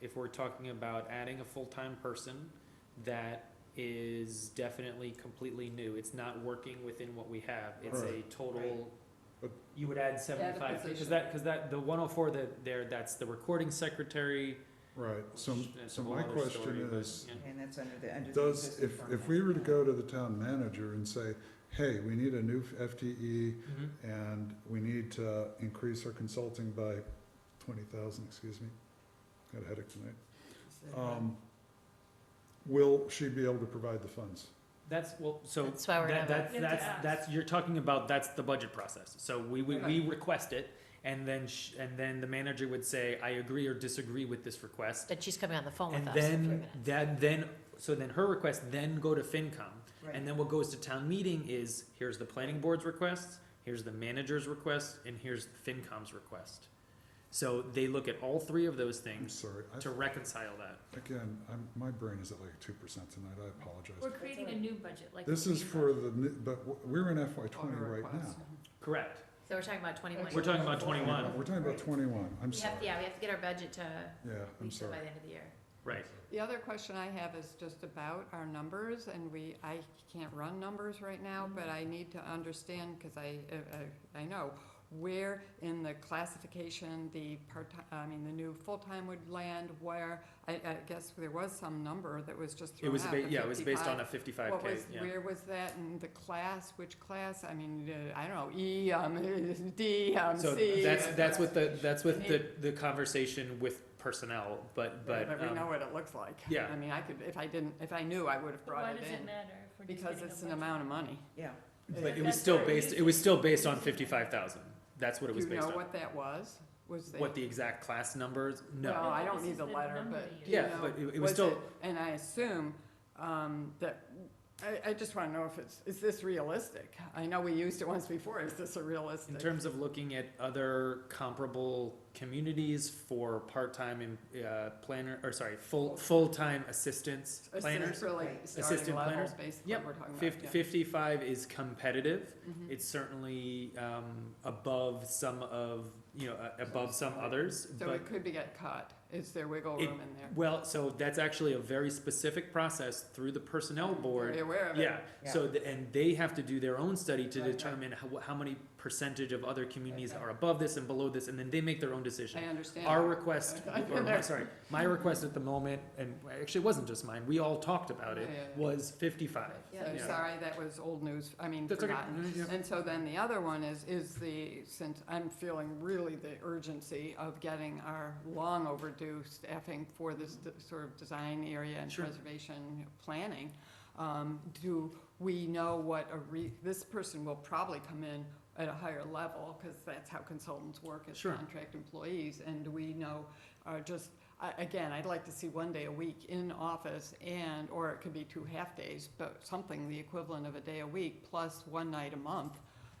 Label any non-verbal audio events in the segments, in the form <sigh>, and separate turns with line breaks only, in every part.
if we're talking about adding a full-time person that is definitely completely new, it's not working within what we have, it's a
Right.
total,
But-
you would add seventy-five, cause
position.
that, cause that, the one oh four that there, that's the recording secretary.
Right, so,
which that's
so
a whole
my
other story,
question
but,
is,
yeah.
And that's under the, under the.
does,
existing
if, if
format.
we were to go to the town manager and say, hey, we need a new FTE
Mhm.
and we need to increase our consulting by twenty thousand, excuse me, got a headache tonight. Um, will she be able to provide the funds?
That's, well, so.
That's why we're
that-
having-
That's,
You have to
that's,
ask.
that's, you're talking about, that's the budget process. So we, we, we
Right.
request it, and then, sh- and then the manager would say, I agree or disagree with this request.
But she's coming on the phone with
And
us in three
then,
minutes.
that, then, so then her request then go to FinCom. And
Right.
then what goes to town meeting is, here's the planning board's request, here's the manager's request, and here's FinCom's request. So they look at all three of those
I'm
things
sorry, I,
to reconcile that.
again, I'm, my brain is at like two percent tonight, I apologize.
We're creating a new budget, like.
This
we
is
have.
for the, new- but w- we're in FY twenty
Order
right now.
request.
Mm-hmm.
Correct.
So we're talking about twenty-one.
We're talking about 21.
We're talking about
Right.
twenty-one, I'm
We have,
sorry, yeah,
yeah, we have to get our budget to
I'm
Lisa by
sorry.
the end of the year.
Right.
The other question I have is just about our numbers, and we, I can't run numbers right now,
Mm-hmm.
but I need to understand, because I, uh, I, I know, where in the classification the part-time, I mean, the new full-time would land, where, I, I guess there was some number that was just
It
thrown
was,
out.
ba-
the
yeah, it was based
55.
on a fifty-five
What
K,
was,
yeah.
where was that, and the class, which class, I mean, uh, I don't know, E, um, <laughs> D, um,
So
C.
that's,
uh,
that's what the, that's what the, the conversation with personnel, but,
Right,
but,
But we know
um,
what it looks like.
yeah.
I mean, I could, if I didn't, if I knew, I would have
But why
brought
does
it
it
in,
matter if we're just
because
getting a
it's an
budget?
amount of money.
Yeah,
but it was
That's
still
what we're
based, it
using.
was still based on fifty-five thousand. That's what
Do
it was
you
based
know
on.
what that was? Was they?
What the exact class numbers,
Well,
no.
I
This
don't
is
need the
the
letter,
number
but
you
do you
Yeah,
know,
but it- it was still,
And I assume, um, that, I, I just wanna know if it's, is this realistic? I know we used it once before, is this a realistic?
in terms of looking at other comparable communities for part-time, em- uh, planner, or sorry, full, full-time assistants,
Is this
planners.
really
Right.
starting
Assistant
level,
planners?
Basically,
Yep,
what we're talking about.
Fifty,
Oh, yeah.
fifty-five is competitive.
Mhm.
It's certainly, um, above some of, you know, uh, above some others,
So
but
it could be get cut. Is there wiggle
It-
room in there?
Well, so that's actually a very specific process through the personnel
Are you
board.
aware of it?
Yeah, so, the- and they have to do their own study to
Right, right.
determine how, how many percentage of other communities
Okay.
are above this and below this, and then they make their own
I
decision.
understand.
Our
that. <laughs>
request,
I've
or
been
my,
there.
sorry, my request at the moment, and actually it wasn't just mine, we all talked about it,
Yeah, yeah, yeah.
was fifty-five.
So
Yeah.
sorry, that was old news, I mean,
That's okay.
forgotten.
Yeah, yeah.
And so then the other one is, is the, since I'm feeling really the urgency of getting our long overdue staffing for this d- sort of design area and
Sure.
preservation planning, um, do we know what a re, this person will probably come in at a higher level, because that's how consultants work as
Sure.
contract employees, and do we know, uh, just, I, again, I'd like to see one day a week in office and, or it could be two half-days, but something the equivalent of a day a week plus one night a month.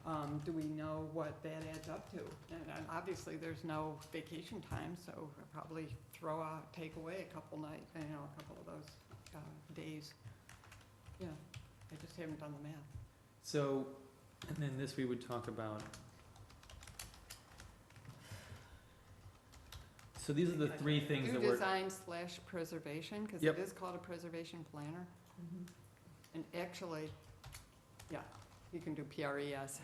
Um, do we know what that adds up to? And uh, obviously, there's no vacation time, so I'll probably throw out, take away a couple night, you know, a couple of those, uh, days. Yeah, I just haven't done the math.
So, and then this we would talk about. So these are the three things
Do
that were.
design slash preservation, because
Yep.
it is called a preservation planner. And actually, yeah, you can do E <laughs> PRES,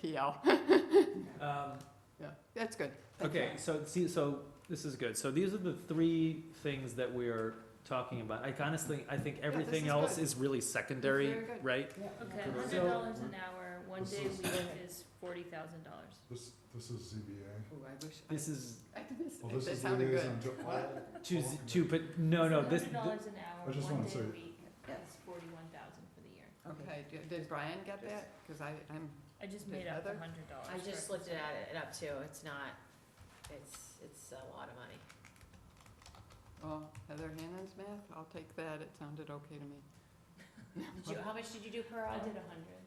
PL,
Um,
yeah, that's good. Thank you.
Okay, so see, so this is good. So these are the three things that we are talking about. I honestly, I think everything
is
else
good.
is really secondary,
very good.
right?
Okay,
So-
hundred dollars an hour, one
This
day a
is-
week is forty thousand dollars.
This, this is ZBA.
Ooh, I wish, I,
This is
I did this,
Well, this
that
is
sounded good.
liaison to all.
two, z- two, but no, no, this,
Hundred dollars an
I just
hour, one
wanna
day
say-
a week,
Yeah.
that's forty-one thousand for the year.
Okay, d- did Brian get that? Because I, I'm,
I just
Did
made up the
Heather?
hundred dollars.
I just looked it at it up too. It's not, it's, it's a lot of money.
oh, Heather Hannan's math, I'll take that, it sounded okay to me.
Did you, how much did you do per
I
hour?
did a hundred.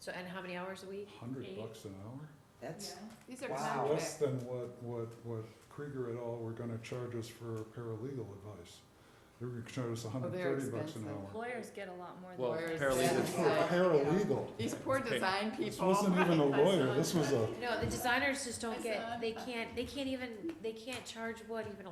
So, and how many hours a week?
Hundred
Eight.
bucks an hour?
that's,
These are
Wow.
Less
contract,
than what, what, what Krieger et al. were gonna charge us for paralegal advice. They were gonna charge us hundred
they're
thirty bucks an
Oh, expensive.
hour.
Lawyers get a lot more than.
Well,
Lawyers
paralegal.
get-
For a paralegal.
these poor
Okay.
design people.
This wasn't
<laughs>
even a lawyer, this was a
No, the designers just
I
don't get,
saw it.
they can't, they can't even, they can't charge what even